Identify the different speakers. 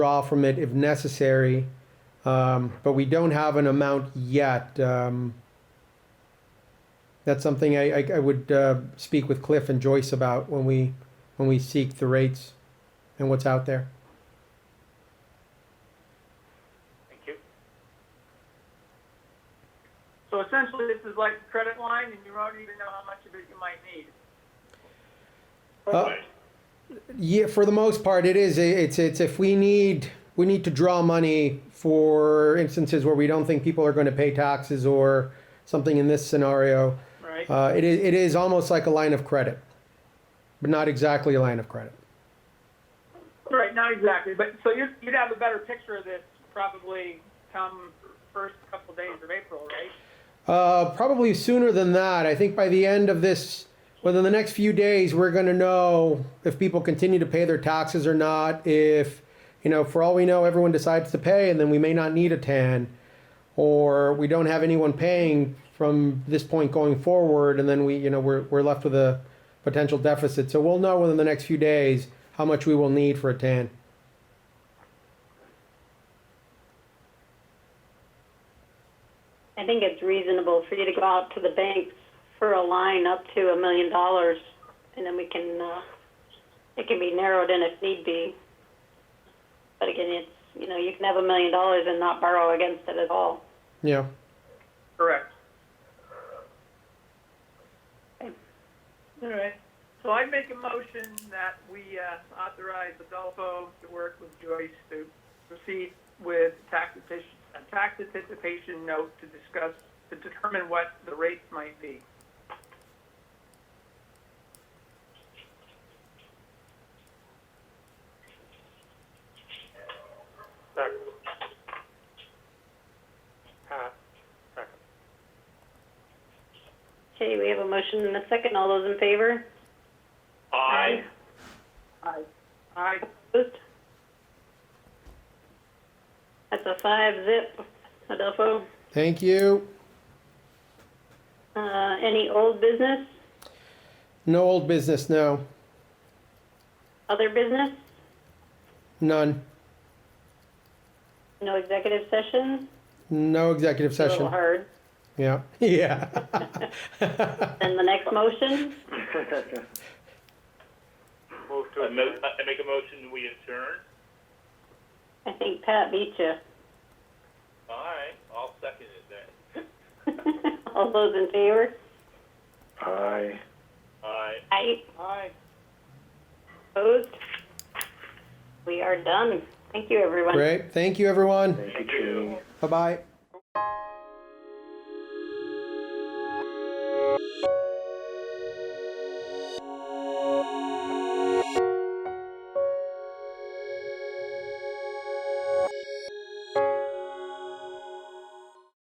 Speaker 1: draw from it if necessary. Um, but we don't have an amount yet. Um, that's something I, I, I would, uh, speak with Cliff and Joyce about when we, when we seek the rates and what's out there.
Speaker 2: Thank you. So essentially, this is like a credit line, and you don't even know how much of it you might need.
Speaker 1: Uh, Yeah, for the most part, it is. It's it's if we need we need to draw money for instances where we don't think people are going to pay taxes or something in this scenario.
Speaker 2: Right?
Speaker 1: Uh, it is it is almost like a line of credit, but not exactly a line of credit.
Speaker 2: Right, not exactly, but, so you'd, you'd have a better picture of this probably come first couple days of April, right?
Speaker 1: Uh, probably sooner than that. I think by the end of this, within the next few days, we're going to know if people continue to pay their taxes or not. If, you know, for all we know, everyone decides to pay and then we may not need a TAN, or we don't have anyone paying from this point going forward, and then we, you know, we're, we're left with a potential deficit. So we'll know within the next few days how much we will need for a TAN.
Speaker 3: I think it's reasonable for you to go out to the banks for a line up to a million dollars, and then we can, uh, it can be narrowed in if need be. But again, it's, you know, you can have a million dollars and not borrow against it at all.
Speaker 1: Yeah.
Speaker 2: Correct. All right, so I make a motion that we uh, authorize Adolfo to work with Joyce to proceed with tax anticipation, a tax anticipation note to discuss, to determine what the rates might be. Uh,
Speaker 3: Okay, we have a motion and a second. All those in favor?
Speaker 2: Aye. Aye. Aye.
Speaker 3: Opposed? That's a five zip, Adolfo.
Speaker 1: Thank you.
Speaker 3: Uh, any old business,
Speaker 1: No old business, no.
Speaker 3: other business?
Speaker 1: None.
Speaker 3: No executive session?
Speaker 1: No executive
Speaker 3: A little
Speaker 1: session.
Speaker 3: hard.
Speaker 1: Yeah. Yeah.
Speaker 3: And the next motion?
Speaker 2: Move
Speaker 4: I mo- I Uh, make a motion, we adjourn.
Speaker 3: I think Pat beat you.
Speaker 4: All right, I'll second it then.
Speaker 3: All those in favor?
Speaker 5: Aye.
Speaker 4: All right.
Speaker 3: Aye.
Speaker 2: Aye.
Speaker 3: Opposed? We are done. Thank you, everyone.
Speaker 1: Great. Thank you, everyone.
Speaker 5: Thank you.
Speaker 1: Bye bye.